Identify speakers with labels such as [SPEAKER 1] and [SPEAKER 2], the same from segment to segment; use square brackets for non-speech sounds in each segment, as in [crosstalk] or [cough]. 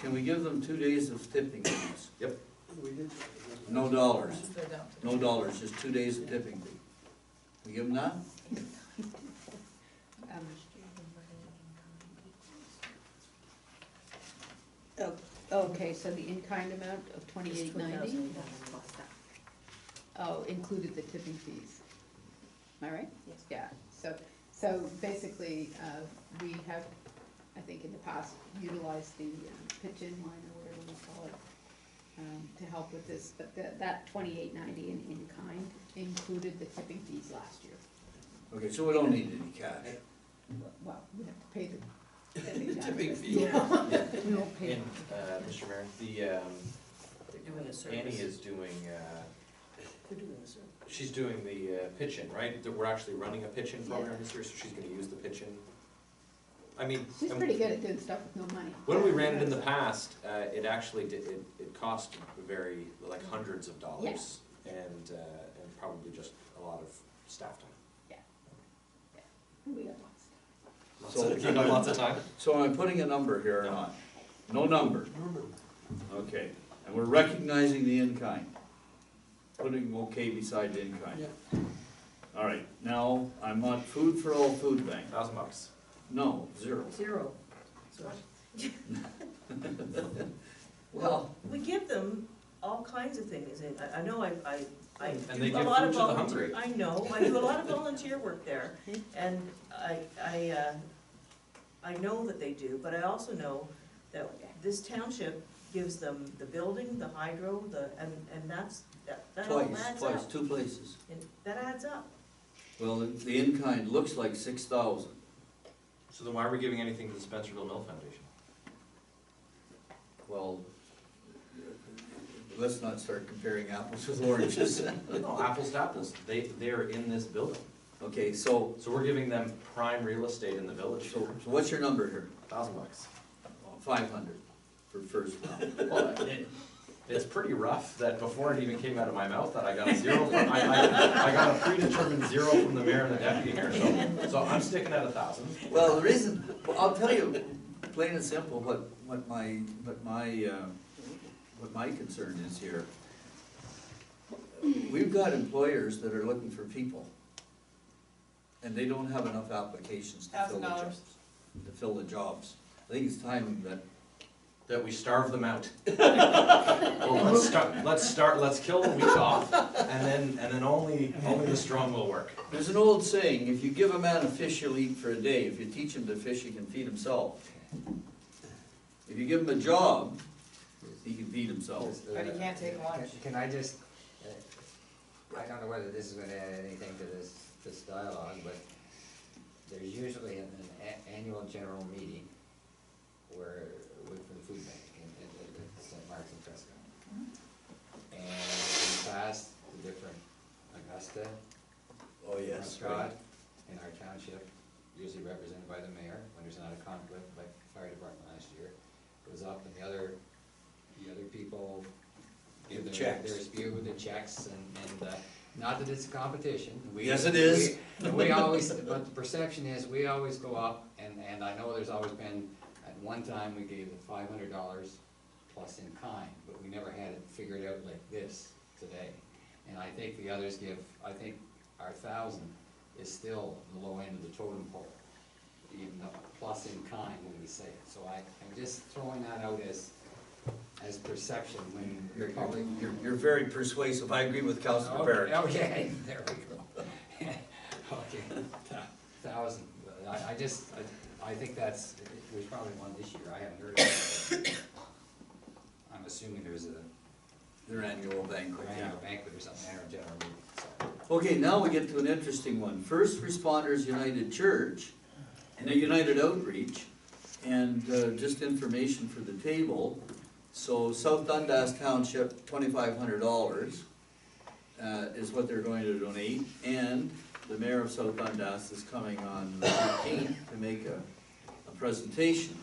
[SPEAKER 1] Can we give them two days of tipping fees?
[SPEAKER 2] Yep.
[SPEAKER 3] We did.
[SPEAKER 1] No dollars,
[SPEAKER 4] Go down to-
[SPEAKER 1] no dollars, just two days of tipping fee. We give them that?
[SPEAKER 5] Um, oh, Okay, so the in-kind amount of twenty-eight ninety, oh, included the tipping fees. Am I right?
[SPEAKER 4] Yes.
[SPEAKER 5] Yeah, so, so basically, uh, we have, I think in the past, utilized the um, pitch-in line or whatever we call it um, to help with this, but that, that twenty-eight ninety in in-kind included the tipping fees last year.
[SPEAKER 1] Okay, so we don't need any cash.
[SPEAKER 5] Well, we have to pay the tipping fee.
[SPEAKER 3] Tipping fee.
[SPEAKER 5] [laughs] We won't pay.
[SPEAKER 2] And, uh, Mr. Mayor, the, um,
[SPEAKER 4] They're doing a service.
[SPEAKER 2] Annie is doing, uh,
[SPEAKER 4] They're doing a service.
[SPEAKER 2] she's doing the uh, pitch-in, right? That We're actually running a pitch-in program this year, so she's gonna use the pitch-in. I mean.
[SPEAKER 5] She's
[SPEAKER 2] I'm-
[SPEAKER 5] pretty good at doing stuff with no money.
[SPEAKER 2] When we ran it in the past, uh, it actually did, it, it cost very, like
[SPEAKER 5] Mm-hmm.
[SPEAKER 2] hundreds of dollars. And, uh, and probably just a lot of staff time.
[SPEAKER 5] We got lots of
[SPEAKER 2] Lots
[SPEAKER 1] So-
[SPEAKER 2] of, you know, [laughs] lots of time.
[SPEAKER 1] So am I putting a number here or not? No number, okay. And we're recognizing the in-kind. Putting okay beside the in-kind.
[SPEAKER 3] Yeah.
[SPEAKER 1] All right, now, I'm on food for all food bank.
[SPEAKER 2] Thousand bucks.
[SPEAKER 1] No, zero.
[SPEAKER 4] Zero. So- [laughs]
[SPEAKER 1] Well,
[SPEAKER 4] We give them all kinds of things, and I, I know I, I, I
[SPEAKER 2] And
[SPEAKER 4] do
[SPEAKER 2] they
[SPEAKER 4] a
[SPEAKER 2] give
[SPEAKER 4] lot of volunteer.
[SPEAKER 2] food to the hungry.
[SPEAKER 4] I know, I do a lot of volunteer work there, and I, I, uh, I know that they do, but I also know that this township gives them the building, the hydro, the, and, and that's, that, that all
[SPEAKER 1] twice,
[SPEAKER 4] adds
[SPEAKER 1] twice,
[SPEAKER 4] up.
[SPEAKER 1] two places.
[SPEAKER 4] And that adds up.
[SPEAKER 1] Well, the- the in-kind looks like six thousand.
[SPEAKER 2] So then why are we giving anything to the Spencerville Mill Foundation?
[SPEAKER 1] Well, let's not start comparing apples with oranges.
[SPEAKER 2] No, apples to apples. They, they're in this building.
[SPEAKER 1] Okay, so,
[SPEAKER 2] So we're giving them prime real estate in the village.
[SPEAKER 1] so, so what's your number here?
[SPEAKER 2] Thousand bucks.
[SPEAKER 1] Five hundred for first round.
[SPEAKER 2] Well, it- It's pretty rough that before it even came out of my mouth that I got a zero from, I, I, I got a predetermined zero from the mayor and the deputy mayor, so, so I'm sticking at a thousand.
[SPEAKER 1] Well, the reason, well, I'll tell you, plain and simple, what, what my, what my, uh, what my concern is here. We've got employers that are looking for people, and they don't have enough applications to fill the
[SPEAKER 4] $1,000.
[SPEAKER 1] jobs. To fill the jobs. I think it's time that
[SPEAKER 2] That we starve them out. Well, let's start, let's start, let's kill the weak off, and then, and then only, only the strong will work.
[SPEAKER 1] There's an old saying, if you give a man a fish, he'll eat for a day. If you teach him to fish, he can feed himself. If you give him a job, he can feed himself.
[SPEAKER 6] But he can't take lunch. uh, Can I just, uh, I don't know whether this is gonna add anything to this, this dialogue, but there's usually an, an a- annual general meeting where, with, for the food bank in, in, in at St. Mark's and Fresco. And in the past, the different Augusta,
[SPEAKER 1] Oh,
[SPEAKER 6] Prescott, in our township, usually represented by the mayor, when there's not a conflict, like the fire department last year, goes up and the other, the other people give their,
[SPEAKER 1] Checks.
[SPEAKER 6] their spew with the checks and, and, uh, not that it's a competition. We-
[SPEAKER 1] Yes, it is.
[SPEAKER 6] we- We always, but the perception is, we always go up, and, and I know there's always been, at one time, we gave them five hundred dollars plus in kind, but we never had it figured out like this today. And I think the others give, I think our thousand is still the low end of the totem pole, even though plus in kind when we say it. So I, I'm just throwing that out as, as perception when
[SPEAKER 1] You're, you're-
[SPEAKER 6] you're probably.
[SPEAKER 1] you're, you're very persuasive. I agree with Counselor Barrett.
[SPEAKER 6] Okay, [laughs] there we go. [laughs] Okay, thou- thousand, I, I just, I, I think that's, there's probably one this year, I haven't heard of it. [coughs] I'm assuming there's a
[SPEAKER 1] Their annual banquet.
[SPEAKER 6] annual banquet or something, or a general meeting, so.
[SPEAKER 1] Okay, now we get to an interesting one. First Responders United Church, and a United Outreach, and uh, just information for the table. So South Dundas Township, twenty-five hundred dollars uh, is what they're going to donate. And the mayor of South Dundas is coming on the fifteenth to make a, a presentation.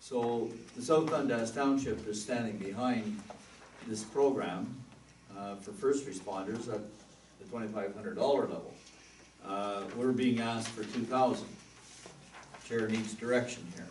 [SPEAKER 1] So the South Dundas Township is standing behind this program uh, for first responders at the twenty-five hundred dollar level. Uh, We're being asked for two thousand. Chair needs direction here.